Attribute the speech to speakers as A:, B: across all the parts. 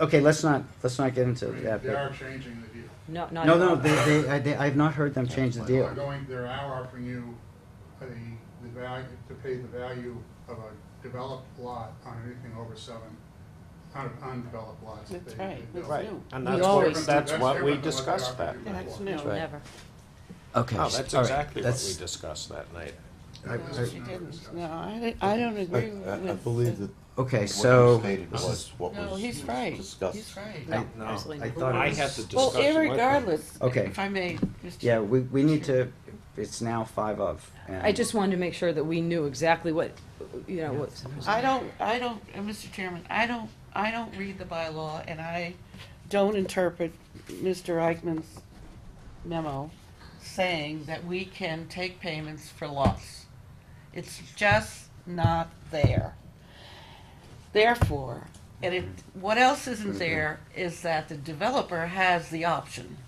A: Okay, let's not, let's not get into that.
B: They
A: but-
B: are changing the deal.
C: No, not
A: No,
C: at
A: no,
C: all.
A: they, they, I, they, I've not heard them change the
B: They're
A: deal.
B: going, they're now offering you the, the value, to pay the value of a developed lot on anything over seven, on undeveloped lots. that
D: That's
B: they-
D: right,
B: they
D: that's
B: built.
D: new.
E: And
C: We
E: that's
C: always
E: what,
C: do.
E: that's what we
B: different than what they
E: discussed
B: offered
E: that.
B: you
D: That's
B: before.
D: new.
E: right.
C: Never.
A: Okay.
F: Oh,
E: No,
A: s-
E: that's
A: all right,
E: exactly what we
A: that's-
E: discussed that night.
B: I-
D: No,
B: this
D: she
B: is not
D: didn't.
B: discussed.
D: No, I, di- I don't
F: I,
D: agree with.
F: I- I believe that
A: Okay,
F: what
A: so-
F: you stated was what
D: No,
F: was
D: he's right.
F: discussed.
D: He's right.
A: I-
E: No,
C: absolutely
A: I
C: not.
A: thought
E: I
A: it
E: had the
A: was,
D: Well,
E: discussion with them.
D: irregardless,
A: Okay.
D: if I may, Mr.
A: yeah, we, we need to, it's now five of. and-
C: I just wanted to make sure that we knew exactly what, you know, what.
D: I don't, I don't, uh, Mr. Chairman, I don't, I don't read the bylaw and I don't interpret Mr. Eichmann's memo saying that we can take payments for loss. It's just not there. Therefore, and it, what else isn't there is that the developer has the option.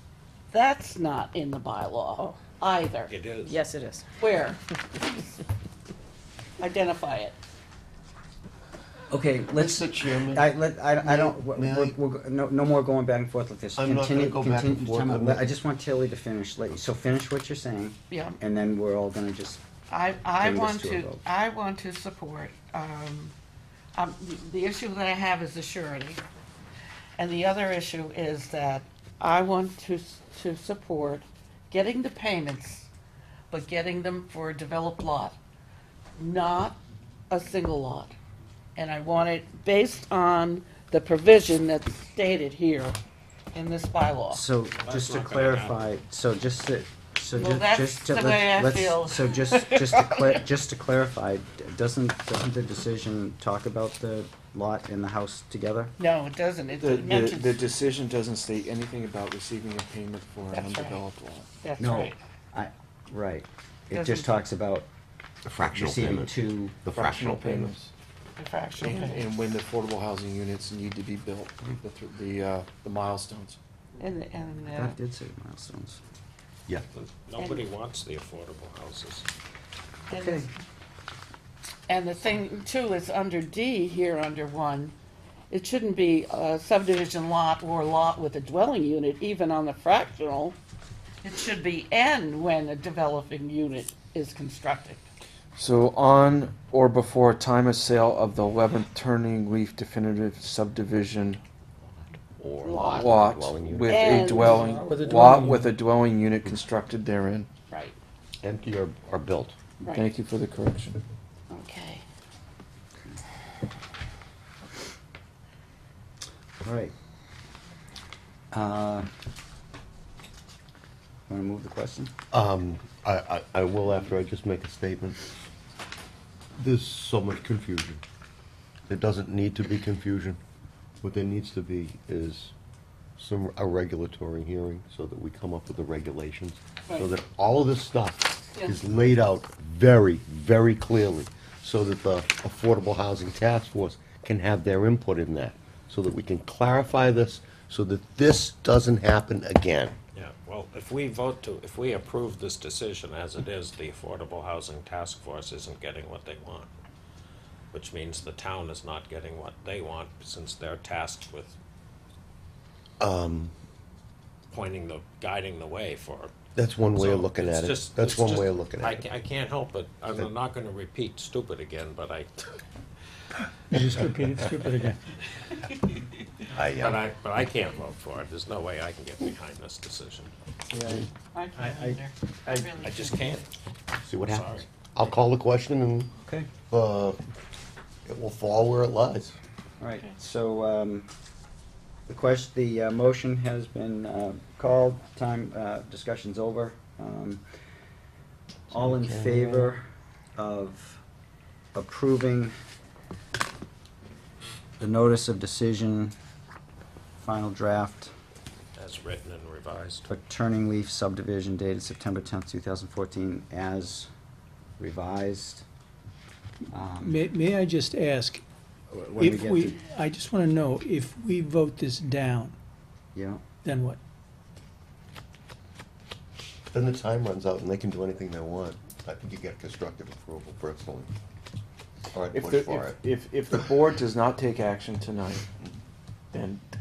D: That's not in the bylaw either.
E: It is.
C: Yes, it is.
D: Where? Identify it.
A: Okay, let's,
F: Mr. Chairman,
A: I, let, I, I don't,
F: May-
A: we're,
F: may
A: we're, we're- no, no more going back and forth like this.
F: I'm not
A: Continue-
F: gonna go back and
A: continue-
F: forth.
A: time out.
F: I'm
A: Let-
F: not-
A: I just want Tilly to finish, let- so finish what you're saying,
D: Yeah.
A: and then we're all gonna just,
D: I, I
A: Bring this
D: want
A: to a
D: to,
A: vote.
D: I want to support, um, um, the issue that I have is the surety. And the other issue is that I want to, s- to support getting the payments, but getting them for a developed lot, not a single lot. And I want it based on the provision that's stated here in this bylaw.
A: so, just to
E: not gonna happen.
A: clarify, so just to, so
D: Well,
A: ju-
D: that's
A: just to,
D: the way I
A: let's,
D: feel.
A: let's, so just, just to clar- just to clarify, d- doesn't, doesn't the decision talk about the lot and the house together?
D: No, it doesn't. It
G: The, the,
D: mentions,
G: the decision doesn't state anything about receiving a payment for an
D: That's right.
G: undeveloped lot.
D: that's
A: No,
D: right.
A: I, right, it
D: Doesn't-
A: just talks about
F: the fractional
A: receiving
F: payment,
A: two,
F: the fractional payment.
G: payments.
D: The fractional
G: And,
D: payment.
G: and when the affordable housing units need to be built, the, th- the, uh, the milestones.
D: And, and,
A: I
D: uh,
A: thought it did say milestones.
F: Yeah.
E: Nobody wants the affordable houses.
D: and
A: Okay.
D: And the thing too is under D here, under one, it shouldn't be a subdivision lot or lot with a dwelling unit, even on the fractional. It should be N when a developing unit is constructed.
G: So on or before time of sale of the eleventh turning leaf definitive subdivision
F: Or
D: Lot.
G: lot
F: dwelling unit.
G: with a
D: And-
G: dwelling,
F: With a
G: lot
F: dwelling
G: with a dwelling unit constructed therein.
D: Right,
F: Empty or, or built.
D: right.
G: Thank you for the correction.
D: Okay.
A: All right. Uh, Want to move the question?
F: Um, I, I, I will after I just make a statement. There's so much confusion. There doesn't need to be confusion. What there needs to be is some, a regulatory hearing so that we come up with the regulations. So
D: Right.
F: that all of this stuff is
D: Yeah.
F: laid out very, very clearly. So that the Affordable Housing Task Force can have their input in that. So that we can clarify this, so that this doesn't happen again.
E: Yeah, well, if we vote to, if we approve this decision as it is, the Affordable Housing Task Force isn't getting what they want. Which means the town is not getting what they want since they're tasked with pointing the, guiding the way for
F: That's one way of
E: So
F: looking
E: it's
F: at it.
E: just-
F: That's
E: it's
F: one
E: just-
F: way of looking
E: I
F: at
E: ca-
F: it.
E: I can't help it. I'm not gonna repeat stupid again, but I,
H: You just repeated stupid again.
F: I,
E: but
F: uh,
E: I, but I can't vote for it. There's no way I can get behind this decision.
D: I can't either. I really
E: I just
D: can't.
E: can't.
F: See what
E: Sorry.
F: happens. I'll call the question and,
A: Okay.
F: uh, it will fall where it lies.
A: All right, so um, the question, the uh, motion has been uh, called, time, uh, discussion's over. Um, All in favor of approving the notice of decision, final draft
E: As written and revised.
A: for Turning Leaf subdivision dated September tenth, two thousand fourteen, as revised? Um,
H: May, may I just ask,
A: when we
H: if
A: get
H: we,
A: to-
H: I just want to know, if we vote this down,
A: Yeah,
H: then what?
F: Then the time runs out and they can do anything they want. I think you get constructive approval personally. Or I'd
G: If
F: push
G: the,
F: for it.
G: if, if, if the board does not take action tonight, then